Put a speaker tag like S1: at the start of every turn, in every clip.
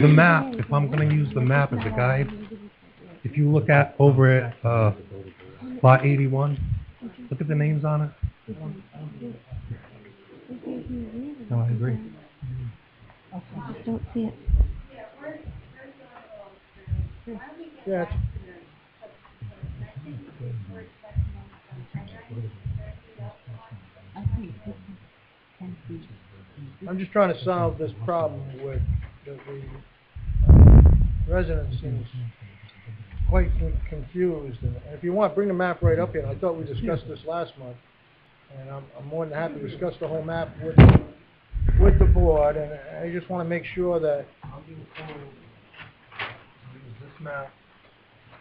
S1: The map, if I'm gonna use the map as a guide, if you look at over at, uh, lot eighty-one, look at the names on it. No, I agree.
S2: I just don't see it.
S3: Yeah, it's-
S2: I think this is ten feet.
S3: I'm just trying to solve this problem with the, the uh, residents seems quite con- confused. And if you want, bring the map right up here. I thought we discussed this last month. And I'm, I'm more than happy to discuss the whole map with, with the board. And I just want to make sure that,
S1: Use this map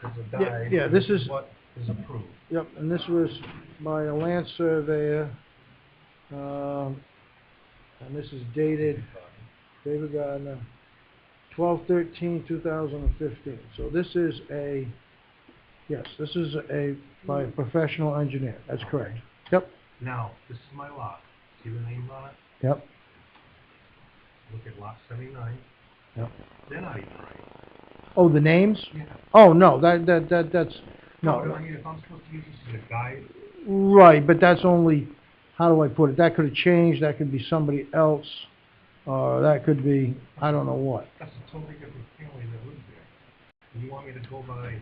S1: as a
S3: Yeah, guide yeah, this is-
S1: What is approved.
S3: yep, and this was by a land surveyor. Um, and this is dated David Gardner, 12/13/2015. So this is a, yes, this is a, by a professional engineer, that's correct. Yep,
S1: Now, this is my lot, see the names on it?
S3: yep,
S1: Look at lot seventy-nine,
S3: yep.
S1: they're not even right.
S3: Oh, the names? Oh, no, that, that, that, that's,
S1: I
S3: no,
S1: mean, If I'm supposed to use this as a guide,
S3: right, but that's only, how do I put it? That could have changed, that could be somebody else, or that could be, I don't know what.
S1: that's a totally different family that lives there. And you want me to go by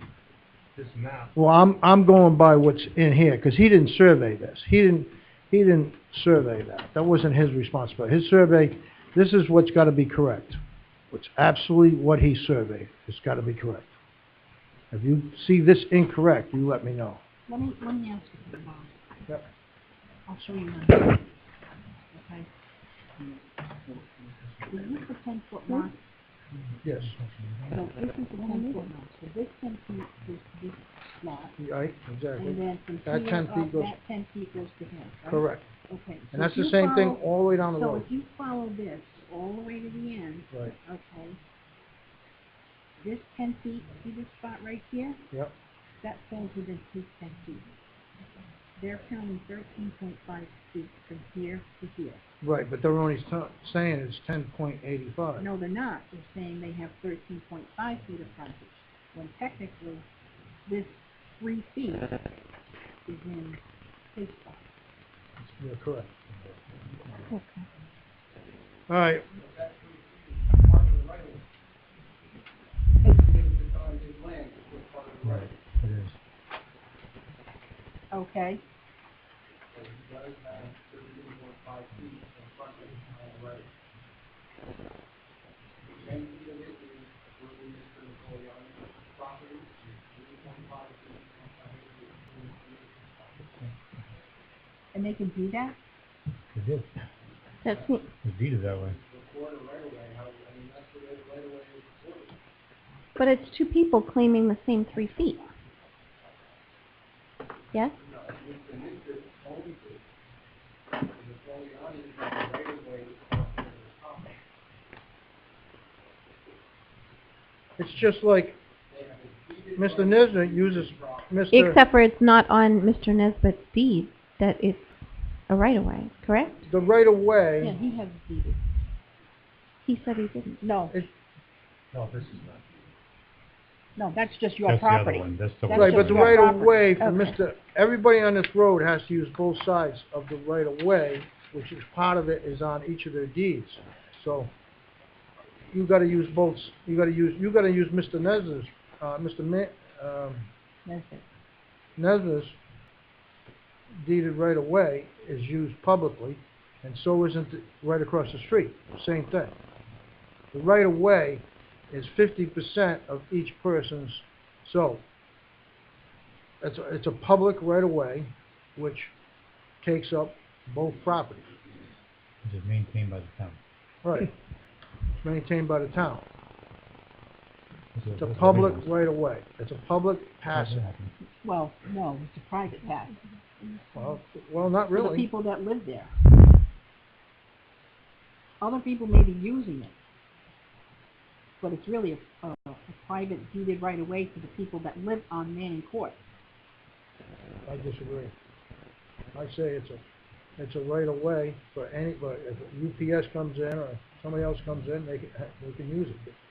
S1: this map?
S3: Well, I'm, I'm going by what's in here, because he didn't survey this. He didn't, he didn't survey that. That wasn't his responsibility. His survey, this is what's got to be correct. It's absolutely what he surveyed. It's got to be correct. If you see this incorrect, you let me know.
S2: Let me, let me ask you, Bob.
S3: Yep.
S2: I'll show you mine. Okay? Is this a ten foot lot?
S3: Yes.
S2: So this is a ten foot lot, so this ten feet is this lot,
S3: Right,
S2: and
S3: exactly.
S2: then from
S3: That
S2: here
S3: 10 feet
S2: up,
S3: goes-
S2: that ten feet goes to him, right?
S3: Correct.
S2: Okay. so
S3: And that's
S2: if
S3: the
S2: you
S3: same thing
S2: follow-
S3: all the way down the
S2: So
S3: road.
S2: if you follow this all the way to the end,
S3: Right,
S2: okay? This ten feet, see this spot right here?
S3: yep,
S2: That falls within his ten feet. They're counting thirteen point five feet from here to here.
S3: right, but they're only sa- saying it's ten point eighty-five.
S2: No, they're not, they're saying they have thirteen point five feet of frontage, when technically, this three feet is in his spot.
S3: You're correct.
S2: Okay.
S3: All right,
S2: Okay, and they can do that?
S1: It is,
S2: That's what.
S1: it's deeded that way.
S4: But it's two people claiming the same three feet. Yes?
S3: it's just like Mr. Nisner uses Mr.
S4: Except for it's not on Mr. Nesbitt's deed that it's a right-of-way, correct?
S3: the right of
S2: Yeah,
S3: way.
S2: he has deeded.
S4: He said he didn't.
S2: No,
S1: No, this is not.
S2: no, that's just your
S1: That's the other
S2: property.
S1: one, that's the one.
S2: That's
S3: Right, but
S2: just
S3: the
S2: your
S3: right of
S2: property.
S3: way for
S2: Okay.
S3: Mr., everybody on this road has to use both sides of the right of way, which is part of it is on each of their deeds. So you gotta use both, s- you gotta use, you gotta use Mr. Nesbitt's, uh, Mr. Ma, um,
S2: That's it.
S3: Nesbitt's deeded right of way is used publicly, and so isn't it right across the street, same thing. The right of way is fifty percent of each person's, so it's, a- it's a public right of way, which takes up both properties.
S5: Is it maintained by the town?
S3: Right. Maintained by the town.
S5: Is it-
S3: It's a
S5: what's the
S3: public
S5: legal-
S3: right of way. It's a public
S5: how's that
S3: passage.
S5: happen?
S2: Well, no, it's a private path.
S3: Well, well, not
S2: for the
S3: really.
S2: people that live there. Other people may be using it, but it's really a, a, a private deeded right of way for the people that live on Manning Court.
S3: I disagree. I say it's a, it's a right of way for any, but if UPS comes in or somebody else comes in, they can, they can use it.